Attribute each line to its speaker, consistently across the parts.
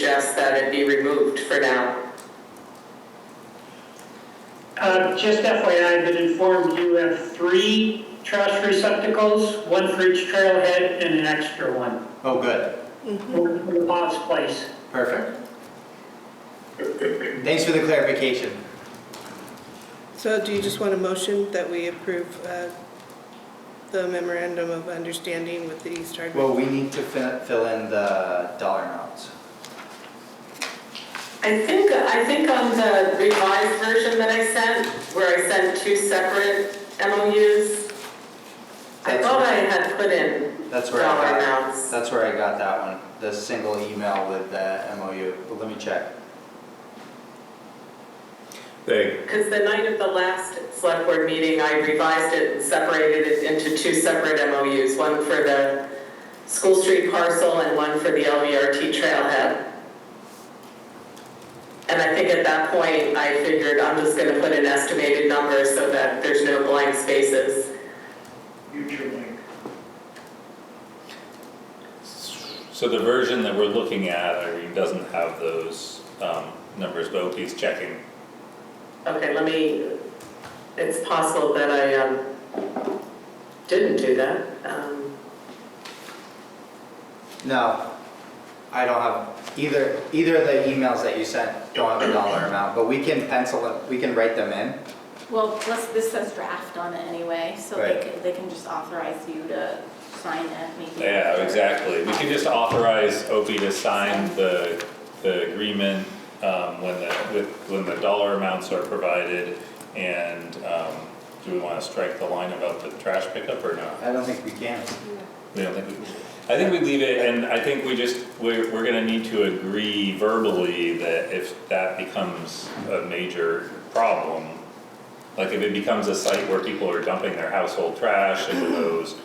Speaker 1: suggest that it be removed for now.
Speaker 2: Um, Just FYI, I've been informed you have three trash receptacles, one for each trailhead and an extra one.
Speaker 3: Oh, good,
Speaker 2: One for the boss place.
Speaker 3: perfect. Thanks for the clarification.
Speaker 4: So do you just want a motion that we approve uh, the memorandum of understanding with the East Hardwick?
Speaker 3: Well, we need to fi- fill in the dollar amounts.
Speaker 1: I think, I think on the revised version that I sent, where I sent two separate MOUs, I
Speaker 3: That's
Speaker 1: thought I
Speaker 3: right.
Speaker 1: had put in
Speaker 3: That's where
Speaker 1: dollar
Speaker 3: I got,
Speaker 1: amounts.
Speaker 3: that's where I got that one, the single email with the MOU, but let me check.
Speaker 5: They,
Speaker 1: Because the night of the last select board meeting, I revised it and separated it into two separate MOUs, one for the School Street parcel and one for the LVRT trailhead. And I think at that point, I figured I'm just gonna put an estimated number so that there's no blank spaces.
Speaker 2: Future link.
Speaker 5: so the version that we're looking at, Irene, doesn't have those, um, numbers, but Opie's checking.
Speaker 1: Okay, let me, it's possible that I, um, didn't do that. Um,
Speaker 3: No, I don't have, either, either of the emails that you sent don't have a dollar amount, but we can pencil, it- we can write them in.
Speaker 6: Well, plus this says draft on it anyway, so they
Speaker 3: Right.
Speaker 6: can, they can just authorize you to sign it maybe.
Speaker 5: Yeah, exactly. We can just authorize Opie to sign the, the agreement, um, when the, with, when the dollar amounts are provided. And, um, do we wanna strike the line about the trash pickup or not?
Speaker 3: I don't think we can.
Speaker 5: We don't think, we- I think we leave it, and I think we just, we're, we're gonna need to agree verbally that if that becomes a major problem, like if it becomes a site where people are dumping their household trash into those,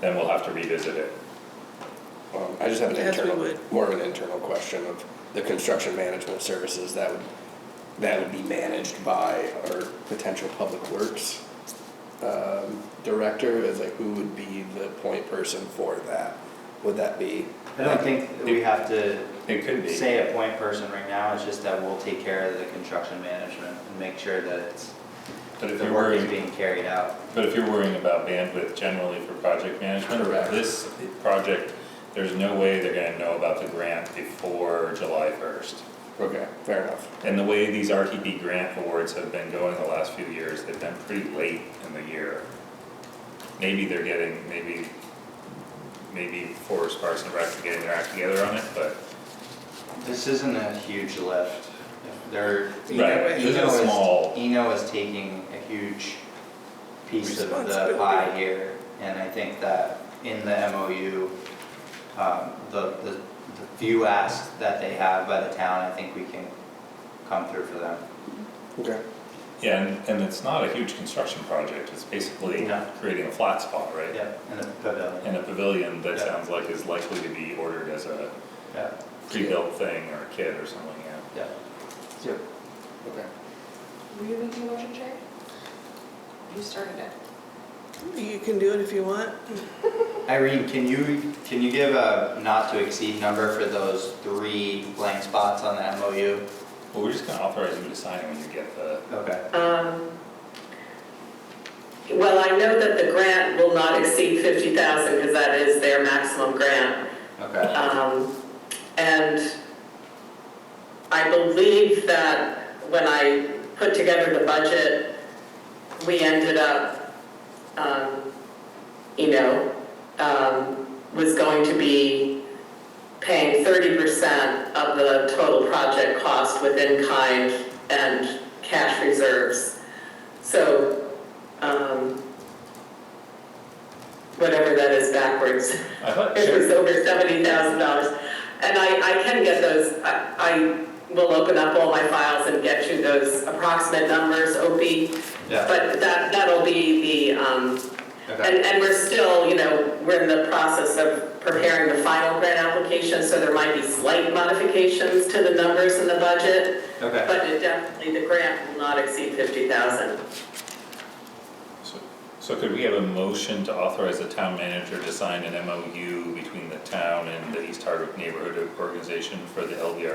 Speaker 5: then we'll have to revisit it.
Speaker 7: Um, I just have an
Speaker 4: Yes, we
Speaker 7: internal,
Speaker 4: would.
Speaker 7: more of an internal question of the construction management services that would, that would be managed by our potential public works um, director, is like, who would be the point person for that? Would that be?
Speaker 3: I don't think we have to
Speaker 5: It could be.
Speaker 3: say a point person right now, it's just that we'll take care of the construction management and make sure that it's,
Speaker 5: But if
Speaker 3: the
Speaker 5: you're
Speaker 3: work is
Speaker 5: worrying,
Speaker 3: being carried out.
Speaker 5: but if you're worrying about bandwidth generally for project management,
Speaker 7: Correct.
Speaker 5: this project, there's no way they're gonna know about the grant before July first.
Speaker 7: Okay, fair enough.
Speaker 5: And the way these RTP grant awards have been going the last few years, they've been pretty late in the year. Maybe they're getting, maybe, maybe Forest Parks and Rec are getting their act together on it, but.
Speaker 3: This isn't a huge lift. They're,
Speaker 5: Right, this is
Speaker 3: Eno
Speaker 5: small.
Speaker 3: is, Eno is taking a huge piece of the pie here. And I think that in the MOU, um, the, the, the few asks that they have by the town, I think we can come through for them.
Speaker 7: Okay.
Speaker 5: Yeah, and, and it's not a huge construction project, it's basically
Speaker 3: No.
Speaker 5: creating a flat spot, right?
Speaker 3: Yeah, in the pavilion,
Speaker 5: And a pavilion that
Speaker 3: Yeah.
Speaker 5: sounds like is likely to be ordered as a
Speaker 3: yeah,
Speaker 5: pre-built thing or a kit or something, yeah.
Speaker 3: yeah.
Speaker 7: Yep. Okay.
Speaker 8: Were you making a motion, Sherry? You started it.
Speaker 4: You can do it if you want.
Speaker 3: Irene, can you, can you give a not to exceed number for those three blank spots on the MOU?
Speaker 5: Well, we're just gonna authorize you to sign it when you get the,
Speaker 3: Okay.
Speaker 1: Um, Well, I know that the grant will not exceed 50,000 because that is their maximum grant.
Speaker 3: Okay.
Speaker 1: Um, And I believe that when I put together the budget, we ended up, um, you know, um, was going to be paying 30% of the total project cost within kind and cash reserves. So, um, whatever that is backwards.
Speaker 5: I thought
Speaker 1: It was
Speaker 5: Sherry,
Speaker 1: over seventy thousand dollars. And I, I can get those, I, I will open up all my files and get you those approximate numbers, Opie.
Speaker 3: Yeah,
Speaker 1: But that, that'll be the, um, and,
Speaker 3: okay,
Speaker 1: and we're still, you know, we're in the process of preparing the final grant application, so there might be slight modifications to the numbers in the budget,
Speaker 3: okay.
Speaker 1: but it definitely, the grant will not exceed fifty thousand.
Speaker 5: So- So could we have a motion to authorize the town manager to sign an MOU between the town and the East Hardwick Neighborhood Organization for the LVRT